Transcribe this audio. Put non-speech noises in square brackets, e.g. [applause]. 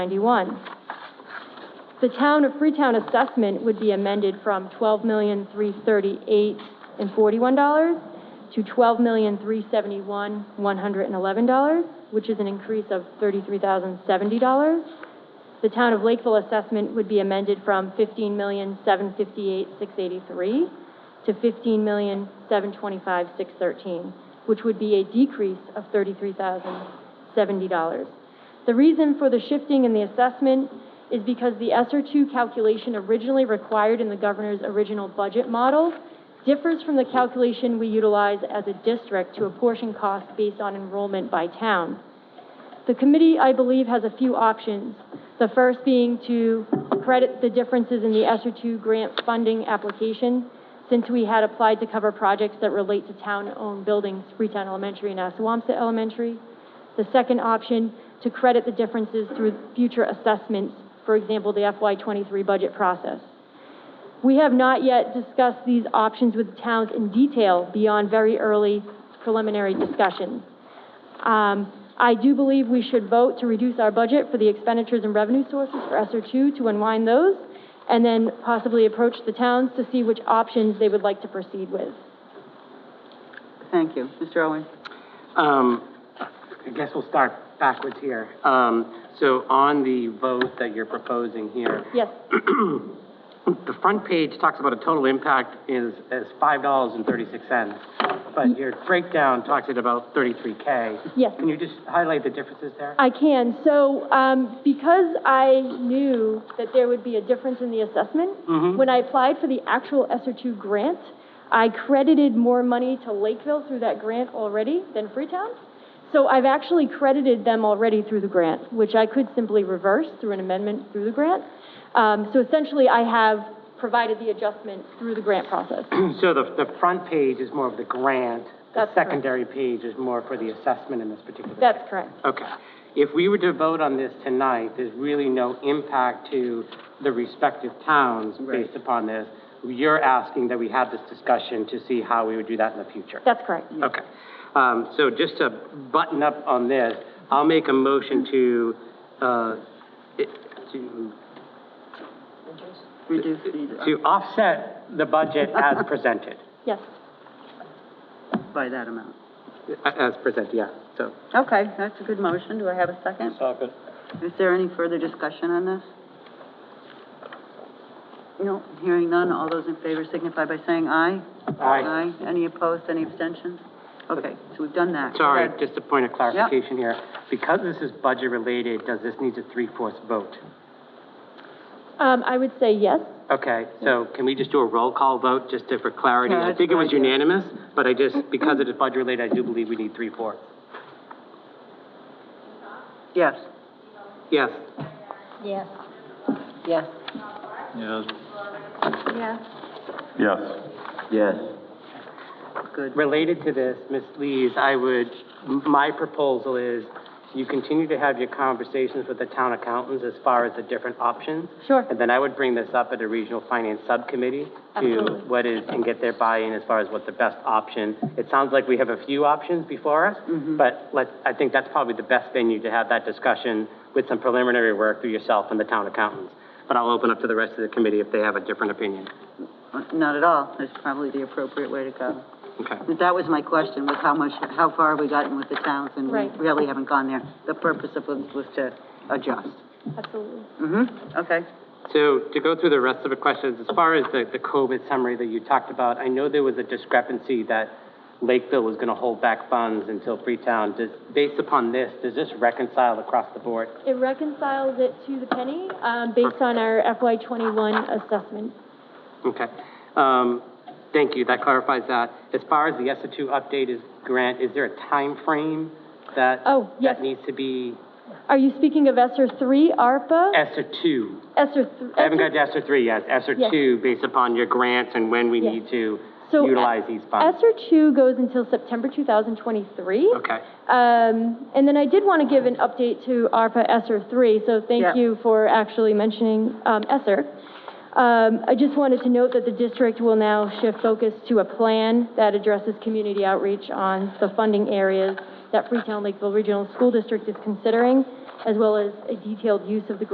91. The town of Freetown assessment would be amended from $12,338.41 to $12,371,111, which is an increase of $33,070. The town of Lakeville assessment would be amended from $15,758,683 to $15,725,613, which would be a decrease of $33,070. The reason for the shifting in the assessment is because the ESER two calculation originally required in the governor's original budget model differs from the calculation we utilize as a district to apportion costs based on enrollment by town. The committee, I believe, has a few options. The first being to credit the differences in the ESER two grant funding application, since we had applied to cover projects that relate to town-owned buildings, Freetown Elementary and Assawamsa Elementary. The second option, to credit the differences through future assessments, for example, the FY twenty-three budget process. We have not yet discussed these options with towns in detail beyond very early preliminary discussions. Um, I do believe we should vote to reduce our budget for the expenditures and revenue sources for ESER two to unwind those, and then possibly approach the towns to see which options they would like to proceed with. Thank you. Mr. Owen? Um, I guess we'll start backwards here. Um, so on the vote that you're proposing here, Yes, [clears throat] the front page talks about a total impact is, is five dollars and thirty-six cents, but your breakdown talks at about thirty-three K. Mm-hmm. Yes. Can you just highlight the differences there? I can. So, um, because I knew that there would be a difference in the assessment, when I applied for the actual ESER two grant, I credited more money to Lakeville through that grant already than Freetown. So I've actually credited them already through the grant, which I could simply reverse through an amendment through the grant. Um, so essentially, I have provided the adjustment through the grant process. [clears throat] So the, the front page is more of the grant, the Uh, That's correct. secondary page is more for the assessment in this particular. That's correct. Okay. If we were to vote on this tonight, there's really no impact to the respective towns Right. based upon this. You're asking that we have this discussion to see how we would do that in the future. That's correct. Okay. Um, so just to button up on this, I'll make a motion to, uh, it- to, Reduce the, uh, to offset the budget as presented. Yes. by that amount. As presented, yeah, so. Okay, that's a good motion. Do I have a second? Is there any further discussion on this? No, hearing none. All those in favor signify by saying aye. Aye. Aye. Any opposed, any abstentions? Okay, so we've done that. Sorry, just a point of clarification here. Because this is budget-related, does this need a three-fourths vote? Um, I would say yes. Okay, so can we just do a roll call vote, just to- for clarity? Yeah, I that's think it a good was idea. unanimous, but I just, because it is budget-related, I do believe we need three-fourths. Yes. Yes, Yes. Yes. Yes. Yes. Yes. Yes. Good. related to this, Ms. Lees, I would, m- my proposal is you continue to have your conversations with the town accountants as far as the different options. Sure. And then I would bring this up at a regional finance subcommittee to Absolutely. what is, and get their buy-in as far as what the best option. It sounds like we have a few options before us, Mm-hmm. but let, I think that's probably the best venue to have that discussion with some preliminary work through yourself and the town accountants. But I'll open up to the rest of the committee if they have a different opinion. Not at all. That's probably the appropriate way to go. Okay. That was my question, was how much, how far have we gotten with the towns, and we Right. really haven't gone there. The purpose of it was to adjust. Absolutely. Mm-hmm, okay. So to go through the rest of the questions, as far as the, the COVID summary that you talked about, I know there was a discrepancy that Lakeville was gonna hold back funds until Freetown. Does, based upon this, does this reconcile across the board? It reconciles it to the penny, um, based on our FY twenty-one assessment. Okay. Um, thank you, that clarifies that. As far as the ESER two update is, grant, is there a time frame that? Oh, yes. That needs to be Are you speaking of ESER three, ARPA? ESER two? ESER th- I haven't got ESER to ESER three yet, ESER Yes. two, based upon your grants and when we Yes. need to So, utilize these funds. ESER two goes until September two thousand twenty-three. Okay. Um, and then I did want to give an update to ARPA ESER three, so Yeah. thank you for actually mentioning, um, ESER. Um, I just wanted to note that the district will now shift focus to a plan that addresses community outreach on the funding areas that Freetown Lakeville Regional School District is considering as well as a detailed use of the